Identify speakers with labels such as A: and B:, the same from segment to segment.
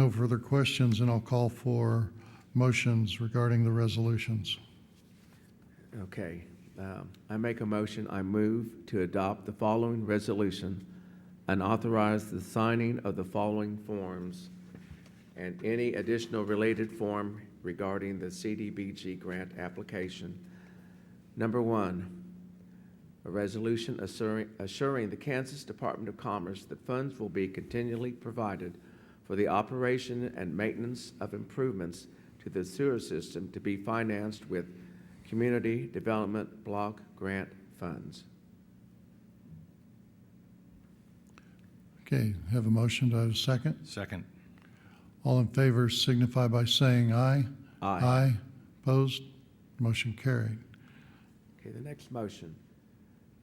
A: no further questions, and I'll call for motions regarding the resolutions.
B: Okay, um, I make a motion, I move to adopt the following resolution and authorize the signing of the following forms and any additional related form regarding the CDBG grant application. Number one, a resolution assuring, assuring the Kansas Department of Commerce that funds will be continually provided for the operation and maintenance of improvements to the sewer system to be financed with Community Development Block Grant Funds.
A: Okay, have a motion, do I have a second?
C: Second.
A: All in favor signify by saying aye.
B: Aye.
A: Opposed? Motion carried.
B: Okay, the next motion.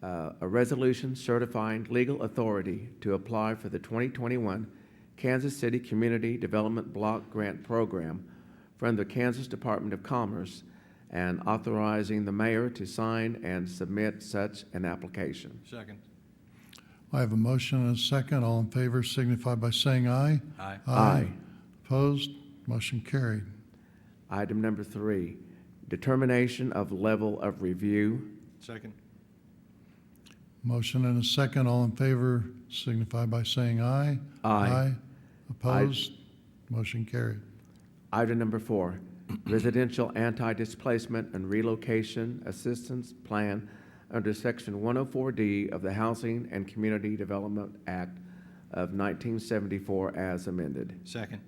B: Uh, A resolution certifying legal authority to apply for the 2021 Kansas City Community Development Block Grant Program from the Kansas Department of Commerce and authorizing the mayor to sign and submit such an application.
C: Second.
A: I have a motion and a second. All in favor signify by saying aye.
C: Aye.
B: Aye.
A: Opposed? Motion carried.
B: Item number three, determination of level of review.
C: Second.
A: Motion and a second. All in favor signify by saying aye.
B: Aye.
A: Opposed? Motion carried.
B: Item number four, residential anti-displacement and relocation assistance plan under Section 104D of the Housing and Community Development Act of 1974 as amended.
C: Second.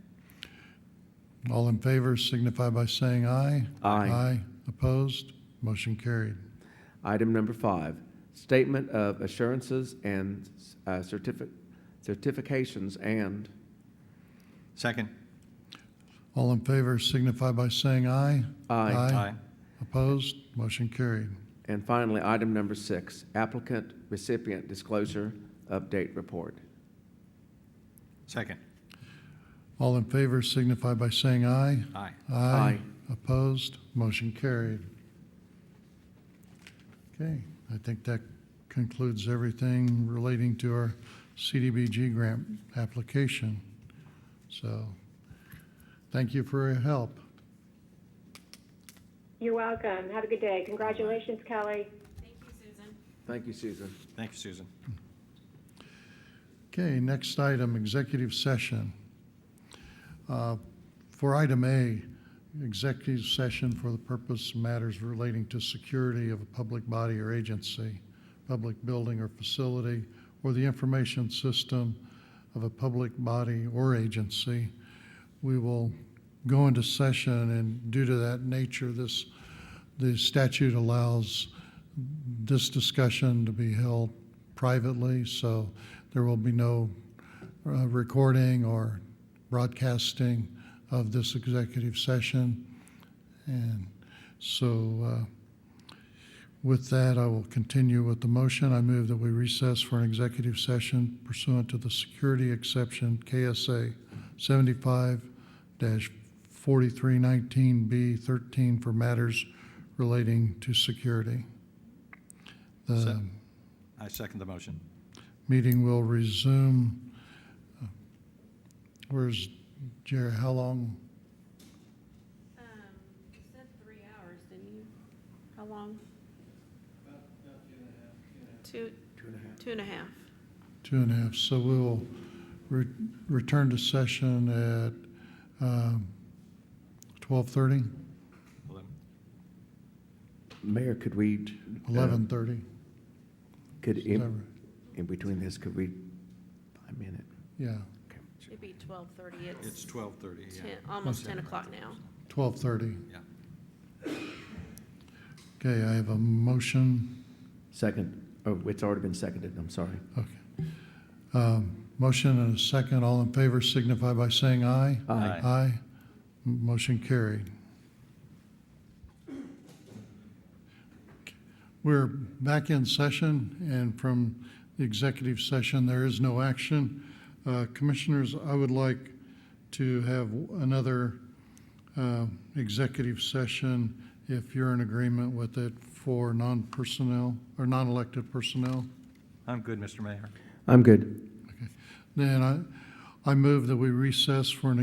A: All in favor signify by saying aye.
B: Aye.
A: Aye. Opposed? Motion carried.
B: Item number five, statement of assurances and uh, certifi- certifications and,
C: Second.
A: All in favor signify by saying aye.
B: Aye.
C: Aye.
A: Opposed? Motion carried.
B: and finally, item number six, applicant recipient disclosure update report.
C: Second.
A: All in favor signify by saying aye.
C: Aye.
B: Aye.
A: Opposed? Motion carried. Okay, I think that concludes everything relating to our CDBG grant application. So, thank you for your help.
D: You're welcome. Have a good day. Congratulations, Kelly.
E: Thank you, Susan.
B: Thank you, Susan.
C: Thank you, Susan.
A: Okay, next item, executive session. Uh, For item A, executive session for the purpose of matters relating to security of a public body or agency, public building or facility, or the information system of a public body or agency. We will go into session, and due to that nature, this, the statute allows this discussion to be held privately, so there will be no uh, recording or broadcasting of this executive session. And so uh, with that, I will continue with the motion. I move that we recess for an executive session pursuant to the security exception KSA 75-4319B13 for matters relating to security. The Um,
C: Se- I second the motion.
A: meeting will resume. uh, Where's Jerry? How long?
E: Um, you said three hours, didn't you? How long? About two and a half. Two. Two and a half.
A: Two and a half. So we will re- return to session at um, 12:30,
C: Eleven.
B: Mayor, could we? uh,
A: 11:30.
B: Could, in-
A: whatever.
B: in between this, could we, a minute?
A: Yeah,
E: It'd be twelve thirty.
C: It's
E: It's
C: twelve thirty, yeah.
E: ten, almost ten o'clock now.
A: 12:30.
C: Yeah.
A: Okay, I have a motion.
B: Second, oh, it's already been seconded, I'm sorry.
A: Okay. Um, Motion and a second. All in favor signify by saying aye.
C: Aye.
A: Aye. M- Motion carried. We're back in session, and from the executive session, there is no action. Uh, Commissioners, I would like to have another uh, executive session, if you're in agreement with it, for non-personnel, or non-elected personnel.
C: I'm good, Mr. Mayor.
B: I'm good.
A: Then I, I move that we recess for an